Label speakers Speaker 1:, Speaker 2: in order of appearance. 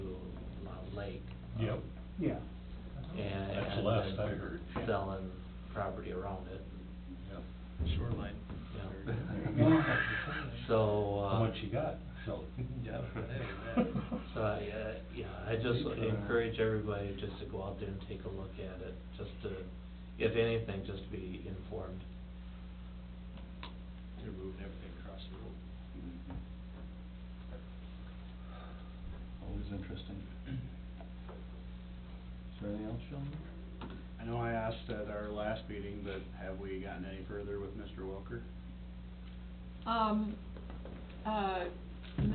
Speaker 1: Yep.
Speaker 2: Yeah.
Speaker 3: Um, and.
Speaker 1: That's the last I heard. yeah.
Speaker 3: Selling property around it,
Speaker 1: Yeah.
Speaker 4: Shoreline.
Speaker 3: Yeah.
Speaker 1: There you go.
Speaker 3: so, uh.
Speaker 1: How much you got, so.
Speaker 4: Yeah,
Speaker 3: So I, uh, yeah, I just encourage everybody just to go out there and take a look at it, just to, if anything, just to be informed.
Speaker 4: They're moving everything across the road.
Speaker 5: Always interesting. Is there anything else, Sheldon?
Speaker 6: I know I asked at our last meeting, but have we gotten any further with Mr. Welker?
Speaker 7: Um, uh,